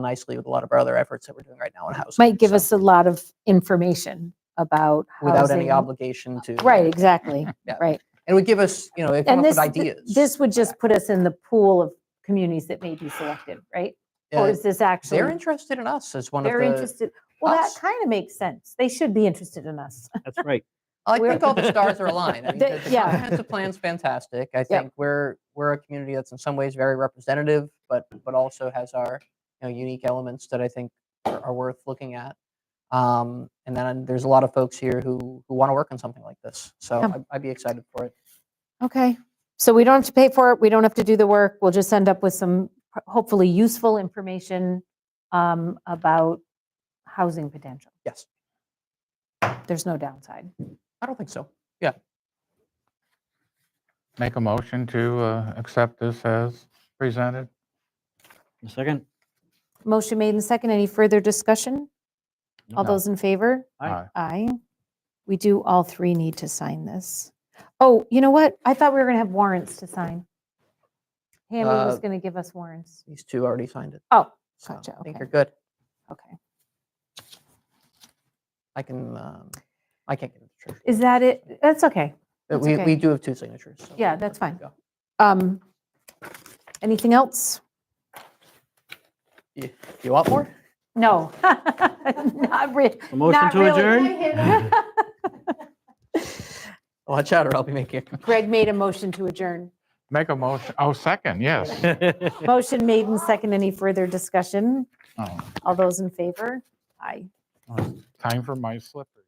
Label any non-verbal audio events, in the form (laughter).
nicely with a lot of our other efforts that we're doing right now in housing. Might give so, us a lot of information about Without any housing. obligation to. Right, exactly. And it would give us, you know, it'd come And up with this, th- ideas. this would just put us in the pool of communities that may be selected, right? Yeah, Or is this They're actually, interested in us as one of they're the, interested? Well, that us. kind of makes sense. They should be interested in us. (laughs) That's right. I we're- think all the stars (laughs) are aligned. I mean, The- the the yeah. comprehensive plan's fantastic. I think we're, we're a community that's in some ways very representative, but, but also has our, you know, unique elements that I think are are worth looking at. Um, And then there's a lot of folks here who, who want to work on something like this. So Yeah. I'd- I'd be excited for it. Okay, so we don't have to pay for it, we don't have to do the work, we'll just end up with some h- hopefully useful information um, about housing potential. Yes. There's no downside. I don't think so. Make a motion to uh, accept this as presented? A second? Motion made and second, any further discussion? All No. those in favor? Aye. Aye. We do all three need to sign this. Oh, you know what? I thought we were going to have warrants to sign. Hammy was Uh, going to give us warrants. These two already signed it. Oh, so gotcha, I think okay. you're good. okay. I can, um, I can't get it. to Trish. Is that it? That's okay. But That's We, okay. we do have two signatures. so Yeah, we're that's good to fine. go. Um, Anything else? You you want (laughs) more? No. Not re- A motion not to adjourn? really. Watch out or I'll be making a complaint. (laughs) Greg made a motion to adjourn. Make a motion, oh, second, yes. (laughs) Motion made and second. Any further discussion? Oh, All those in favor? Aye. Time for my slippers.